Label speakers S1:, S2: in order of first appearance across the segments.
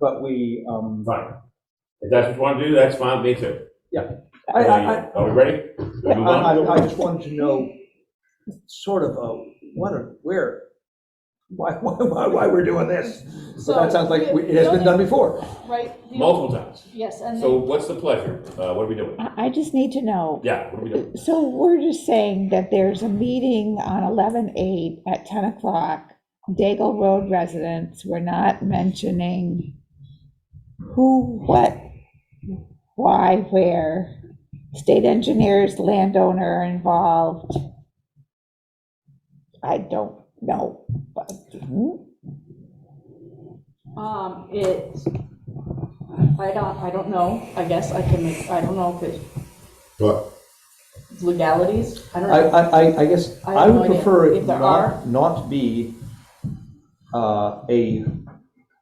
S1: but we, um,
S2: Fine. If that's what you want to do, that's fine, me too.
S1: I, I, I-
S2: Are we ready?
S1: I,
S2: Move on?
S1: I I just wanted to know sort of, uh, what, are- where, why, why, why, why we're doing this? So that sounds like we- it has been done before.
S3: Right? the-
S2: Multiple times.
S3: Yes, and
S2: So
S3: then,
S2: what's the pleasure? Uh, what are we doing?
S4: I I just need to know,
S2: Yeah, what are we doing?
S4: so we're just saying that there's a meeting on 11/8 at 10 o'clock. Daigle Road residents, we're not mentioning who, what, why, where. State engineers, landowner are involved. I don't know, but, hmm,
S3: um, it, I don't, I don't know, I guess I can make, I don't know if
S5: But
S3: it's legalities, I don't
S1: I,
S3: know.
S1: I, I- I guess,
S3: I have
S1: I
S3: no
S1: would
S3: idea
S1: prefer it
S3: if there
S1: not,
S3: are.
S1: not be uh, a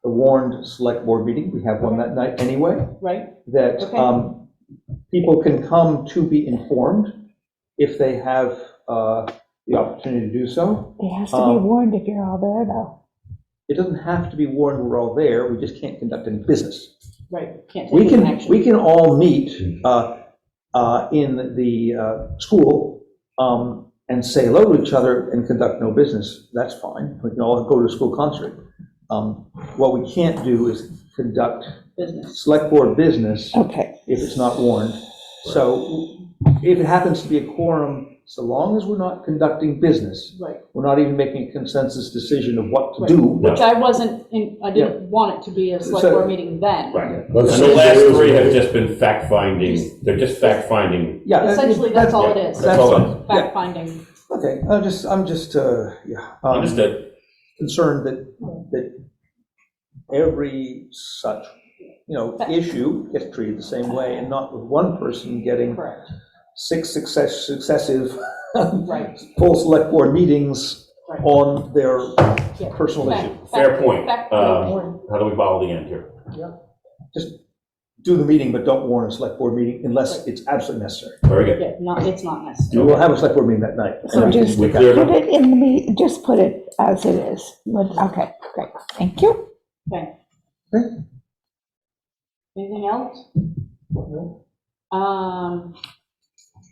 S1: a warned select board meeting, we have one that night anyway,
S3: Right?
S1: that
S3: Okay.
S1: um, people can come to be informed if they have uh, the opportunity to do so.
S4: it has to be
S1: Um,
S4: warned if you're all there, though.
S1: It doesn't have to be warned we're all there, we just can't conduct any business.
S3: Right, can't
S1: We
S3: take an
S1: can,
S3: action.
S1: we can all meet uh, uh, in the uh, school um, and say hello to each other and conduct no business. That's fine. We can all go to a school concert. Um, What we can't do is conduct
S3: Business.
S1: select board business
S4: Okay,
S1: if it's not warned. So if it happens to be a quorum, so long as we're not conducting business,
S3: Right,
S1: we're not even making a consensus decision of what to do.
S3: which I wasn't, in I didn't want it to be a select
S1: So-
S3: board meeting then.
S2: Right.
S5: let's
S2: And
S5: say
S2: the last
S5: there is a
S2: three have
S5: meeting.
S2: just been fact finding. They're just fact finding.
S1: Yeah, that-
S3: Essentially, that's all it is.
S2: That's all it is.
S1: Yeah.
S3: Fact finding,
S1: Okay, I'm just, I'm just, uh, yeah. um,
S2: Understood.
S1: concerned that, that every such, you know, issue gets treated the same way and not with one person getting
S3: correct,
S1: six success, successive
S3: right,
S1: full select board meetings
S3: right.
S1: on their
S3: Yeah.
S1: Oh, personal issue.
S3: Fact-
S2: Fair
S3: fact-
S2: point.
S3: fact
S2: Um,
S3: finding.
S2: How do we follow the end here?
S1: Do the meeting, but don't warn a select board meeting unless it's absolutely necessary.
S2: Very good.
S3: Yeah, not, it's not necessary.
S1: We will have a select board meeting that night.
S4: So
S1: And we can-
S4: just-
S1: we
S2: We
S1: can-
S2: clear it
S4: put
S2: up?
S4: it in the, me- just put it as it is. Would- Okay, great, thank you.
S3: Okay.
S1: Okay.
S3: Anything else? Um,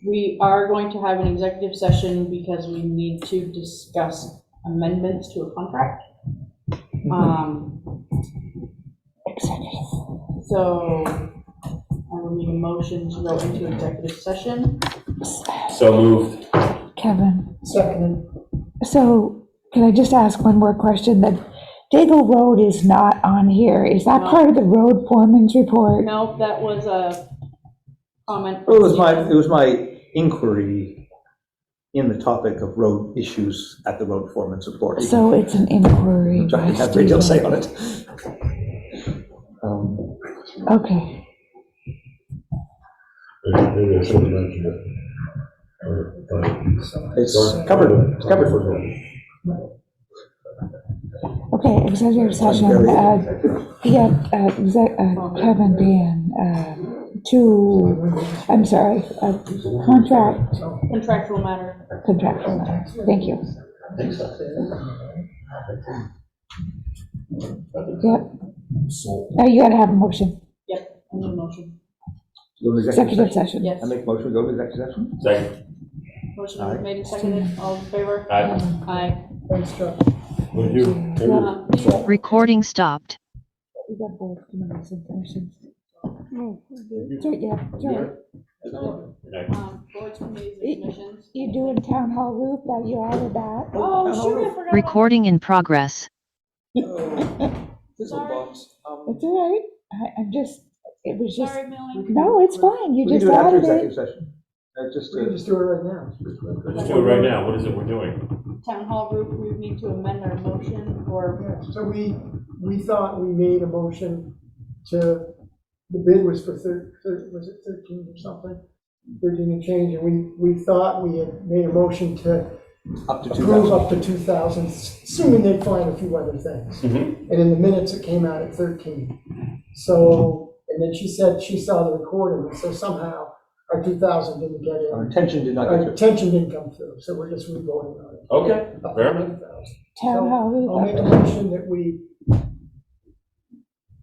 S3: we are going to have an executive session because we need to discuss amendments to a contract. Um, so I will need a motion to go into executive session.
S2: So moved.
S4: Kevin. So can I just ask one more question? That Daigle Road is not on here. Is that
S3: No.
S4: part of the road foreman's report?
S3: No, that was a comment.
S1: Well, It was my, it was my inquiry in the topic of road issues at the road foreman's report.
S4: So it's an inquiry.
S1: Which I
S4: by
S1: have very little say
S4: Stephen.
S1: on it. Um,
S4: Okay,
S5: Maybe I should have mentioned it. Or- or-
S1: It's
S5: Sorry.
S1: covered, it's covered for
S4: okay, executive session,
S1: very-
S4: uh, yeah, uh, exec- uh, Kevin, Dan, uh, to, I'm sorry, uh, contract,
S3: Contractual matter.
S4: contractual matter. Thank you. Yep. Now you gotta have a motion,
S3: Yep, I need a motion.
S1: Go to
S4: executive session.
S3: Yes.
S1: I make motion, we go to executive session?
S2: Second.
S3: Motion
S1: Aye.
S3: is made and seconded, all in favor?
S2: Aye.
S3: Aye. Thanks, Joe.
S5: Would you?
S3: Uh,
S6: Recording stopped.
S4: We got both committees and functions. So, yeah, so
S3: um, Boards, committees, and commissions.
S4: you're doing town hall roof, are you out of that?
S3: Oh, shoot, I forgot.
S6: Recording in progress.
S1: This
S3: Sorry.
S1: Um,
S4: It's all right, I, I'm just, it was just,
S3: Sorry, Millie.
S4: no, it's fine, you
S1: We can
S4: just
S1: do it after
S4: added it.
S1: executive session. Uh, just
S7: We
S1: to-
S7: can just do it right now.
S2: Let's do it right now. What is it we're doing?
S3: Town hall roof, we need to amend our motion or,
S7: Yeah, So we, we thought we made a motion to, the bid was for thir, thir- was it thirteen or something? Thirteen and change, and we, we thought we had made a motion to
S1: up to two
S7: approve
S1: thousand.
S7: up to two thousand, assuming they'd find a few other things.
S2: Mhm.
S7: And in the minutes, it came out at thirteen. So, and then she said she saw the recording, so somehow our two thousand didn't get
S1: Our
S7: in.
S1: intention did not
S7: Our
S1: get to.
S7: attention didn't come through, so we're just re-voting on it.
S2: Okay,
S7: Up to
S2: fair enough.
S7: 2,000.
S4: Town hall
S7: I'll make a
S4: roof,
S7: motion that we